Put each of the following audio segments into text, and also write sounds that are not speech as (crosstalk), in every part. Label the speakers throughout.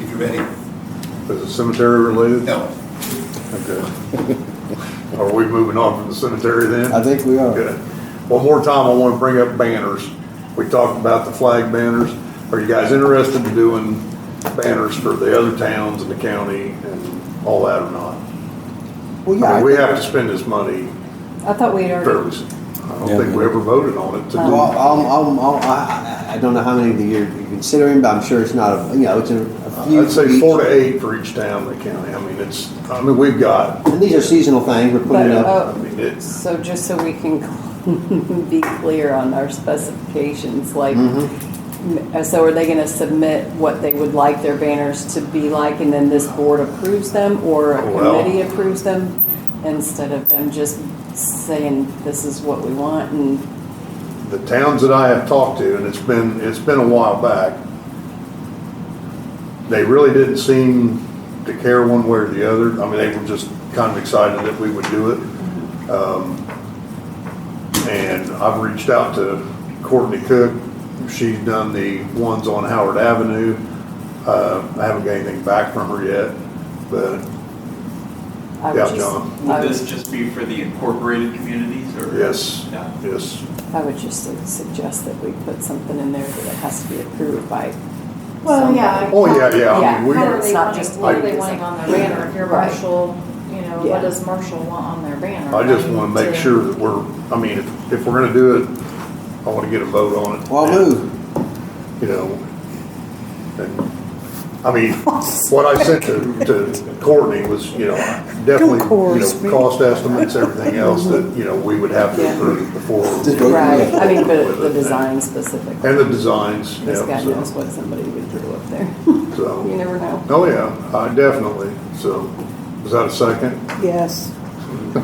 Speaker 1: committee.
Speaker 2: Is it cemetery related?
Speaker 1: No,
Speaker 2: Okay. Are we moving on from the cemetery then?
Speaker 3: I think we are.
Speaker 2: Good. One more time, I want to bring up banners. We talked about the flag banners. Are you guys interested in doing banners for the other towns and the county and all that or not?
Speaker 3: Well,
Speaker 2: I mean, we
Speaker 3: yeah, I
Speaker 2: have to spend this money
Speaker 4: I thought we had
Speaker 2: fairly,
Speaker 4: already,
Speaker 2: soon. I don't think we ever voted on it to
Speaker 3: think- well,
Speaker 2: do.
Speaker 3: I'm, I'm, I'm, I, I- I don't know how many that you're you're considering, but I'm sure it's not, a you know, it's a a few.
Speaker 2: I'd say
Speaker 3: each.
Speaker 2: four to eight for each town and the county. I mean, it's, I mean, we've got,
Speaker 3: And these are seasonal things, we're
Speaker 4: but,
Speaker 3: putting up.
Speaker 2: I
Speaker 4: uh,
Speaker 2: mean, it's,
Speaker 4: so just so we can (laughs) be clear on our specifications, like,
Speaker 2: Mm-hmm.
Speaker 4: m- so are they gonna submit what they would like their banners to be like, and then this board approves them, or a
Speaker 2: Well-
Speaker 4: committee approves them? Instead of them just saying, this is what we want, and,
Speaker 2: the towns that I have talked to, and it's been, it's been a while back, they really didn't seem to care one way or the other. I mean, they were just kind of excited that we would do it. Um, And I've reached out to Courtney Cook. She's done the ones on Howard Avenue. Uh, I haven't got anything back from her yet, but
Speaker 4: I
Speaker 2: Yeah, John.
Speaker 4: would just, I
Speaker 5: Would
Speaker 4: would,
Speaker 5: this just be for the incorporated communities or?
Speaker 2: yes,
Speaker 5: Yeah.
Speaker 2: yes.
Speaker 4: I would just su- suggest that we put something in there that it has to be approved by.
Speaker 6: Well, yeah.
Speaker 4: somebody.
Speaker 2: Oh, yeah, yeah. I
Speaker 4: Yeah,
Speaker 2: mean, we-
Speaker 6: How are
Speaker 4: It's
Speaker 6: they
Speaker 4: not
Speaker 6: wanting,
Speaker 4: just
Speaker 6: what are
Speaker 4: like-
Speaker 6: they wanting on their
Speaker 4: (laughs)
Speaker 6: banner? If you're
Speaker 4: Right.
Speaker 6: Marshall, you know,
Speaker 4: Yeah.
Speaker 6: what does Marshall want on their banner?
Speaker 2: I just
Speaker 6: mean,
Speaker 2: want to make sure that we're, I mean, if, if we're gonna do it, I want to get a vote on it.
Speaker 3: Well, I'll move.
Speaker 2: You know, and, I mean, what I sent to, to Courtney was, you know, definitely, you know, cost estimates, everything else that, you know, we would have to
Speaker 4: Yeah.
Speaker 2: approve before.
Speaker 3: Just vote.
Speaker 4: Right, I mean, but the design specifically.
Speaker 2: And the designs, yeah,
Speaker 4: Because God knows
Speaker 2: so,
Speaker 4: what somebody would throw up there. (laughs) You
Speaker 2: so,
Speaker 4: never know.
Speaker 2: oh yeah, I definitely, so, is that a second?
Speaker 7: Yes,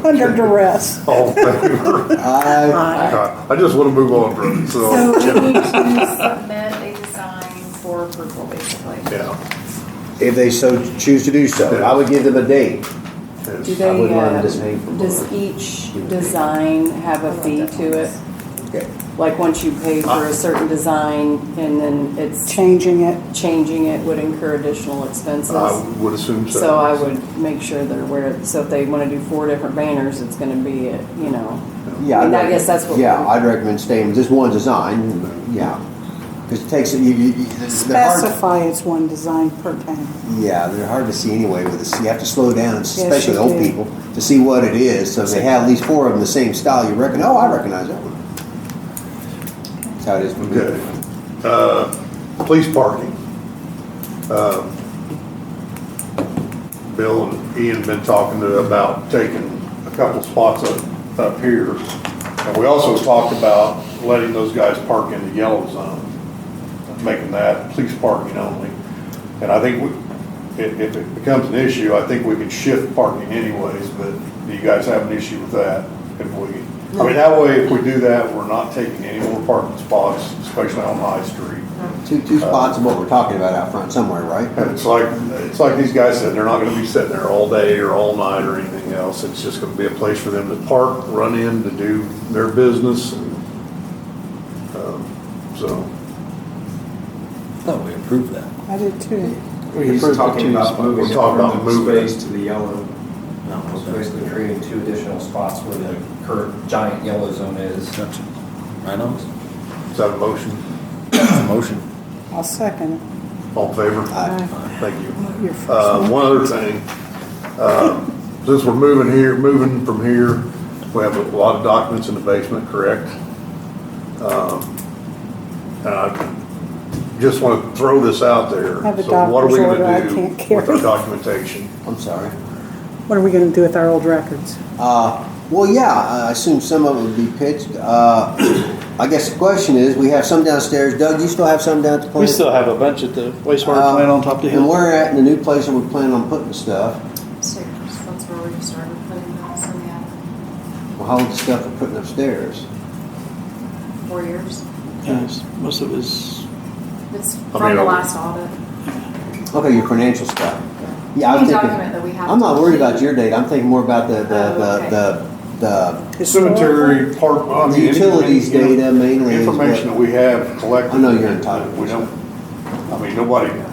Speaker 7: under duress.
Speaker 2: All in
Speaker 4: (laughs)
Speaker 2: favor?
Speaker 3: I,
Speaker 2: I just want to move on from it,
Speaker 6: So
Speaker 2: so,
Speaker 6: we need to submit a design for approval, basically.
Speaker 2: yeah.
Speaker 3: if they so choose to do so, I would give them a date.
Speaker 2: yes.
Speaker 4: Do
Speaker 3: I would
Speaker 4: they,
Speaker 3: want
Speaker 4: uh,
Speaker 3: them to pay for
Speaker 4: does
Speaker 3: more.
Speaker 4: each design have a fee to it? Like, once you pay for a certain design and then it's
Speaker 7: Changing it.
Speaker 4: changing it would incur additional expenses?
Speaker 2: I would assume Uh, so.
Speaker 4: So I would make sure they're aware, so if they want to do four different banners, it's going to be, at, you know,
Speaker 3: Yeah,
Speaker 4: And I
Speaker 3: I'd-
Speaker 4: guess that's what
Speaker 3: Yeah,
Speaker 4: we-
Speaker 3: I'd recommend staying with just one design, yeah. Because it takes, you, you, you- they're hard,
Speaker 7: Specify it's one design per town.
Speaker 3: yeah, they're hard to see anyway with this, you have to slow down, especially
Speaker 7: you
Speaker 3: old
Speaker 7: do.
Speaker 3: people, to see what it is, so if they have at least four of them the same style, you reckon, oh, I recognize that one. That's how it is. with me.
Speaker 2: Okay. Uh, Police parking. Um, Bill and Ian been talking to about taking a couple spots up, up here. And we also talked about letting those guys park in the yellow zone, making that police parking only. And I think we- if, if it becomes an issue, I think we could shift parking anyways, but do you guys have an issue with that? If we, I mean, that way, if we do that, we're not taking any more parking spots, especially on High Street.
Speaker 3: Two, two spots of what we're talking about out front somewhere, right?
Speaker 2: And it's like, it's like these guys said, they're not gonna be sitting there all day or all night or anything else. It's just gonna be a place for them to park, run in, to do their business. and, um, So,
Speaker 8: Thought we approved that.
Speaker 7: I did too.
Speaker 9: He's
Speaker 3: Approved the two
Speaker 9: talking about
Speaker 3: spots.
Speaker 9: moving
Speaker 2: We're
Speaker 9: it
Speaker 2: talking about
Speaker 9: from the
Speaker 2: moving it.
Speaker 9: space to the yellow.
Speaker 8: No,
Speaker 9: So basically
Speaker 8: okay.
Speaker 9: creating two additional spots where the current giant yellow zone is.
Speaker 8: Gotcha. Right on.
Speaker 2: is that a motion?
Speaker 8: Motion.
Speaker 7: I'll second it.
Speaker 2: All in favor?
Speaker 3: I-
Speaker 2: Thank you.
Speaker 7: Your first
Speaker 2: Uh,
Speaker 7: one.
Speaker 2: one other thing, um, since we're moving here, moving from here, we have a lot of documents in the basement, correct? Um, And I just want to throw this out there.
Speaker 7: I have a
Speaker 2: So what are we
Speaker 7: doctor's
Speaker 2: gonna
Speaker 7: order I
Speaker 2: do
Speaker 7: can't
Speaker 2: With our
Speaker 7: carry.
Speaker 2: documentation.
Speaker 3: I'm sorry.
Speaker 7: What are we gonna do with our old records?
Speaker 3: Uh, well, yeah, I assume some of it would be pitched. Uh, I guess the question is, we have some downstairs. Doug, you still have some down at the plant?
Speaker 10: We still have a bunch at the wastewater
Speaker 3: Uh,
Speaker 10: plant on top of the
Speaker 3: And
Speaker 10: hill.
Speaker 3: we're at in the new place that we plan on putting the stuff.
Speaker 6: So that's where we started putting those in the attic.
Speaker 3: Well, how old the stuff we're putting upstairs?
Speaker 6: four years.
Speaker 10: Yes, Most of it's,
Speaker 6: It's
Speaker 2: mean,
Speaker 6: from the
Speaker 2: I'll-
Speaker 6: last audit.
Speaker 3: Okay, your financial stuff. Yeah, I'm
Speaker 6: Any
Speaker 3: thinking.
Speaker 6: document that we have
Speaker 3: I'm not
Speaker 6: to
Speaker 3: worried
Speaker 6: keep.
Speaker 3: about your date. I'm thinking more about the,
Speaker 6: Oh,
Speaker 3: the, the, the,
Speaker 2: Cemetery, park, Oh, I mean. any-
Speaker 3: Utilities
Speaker 2: any-
Speaker 3: data mainly is what-
Speaker 2: Information that we have collected.
Speaker 3: I know you're entitled.
Speaker 2: We don't, I mean, nobody,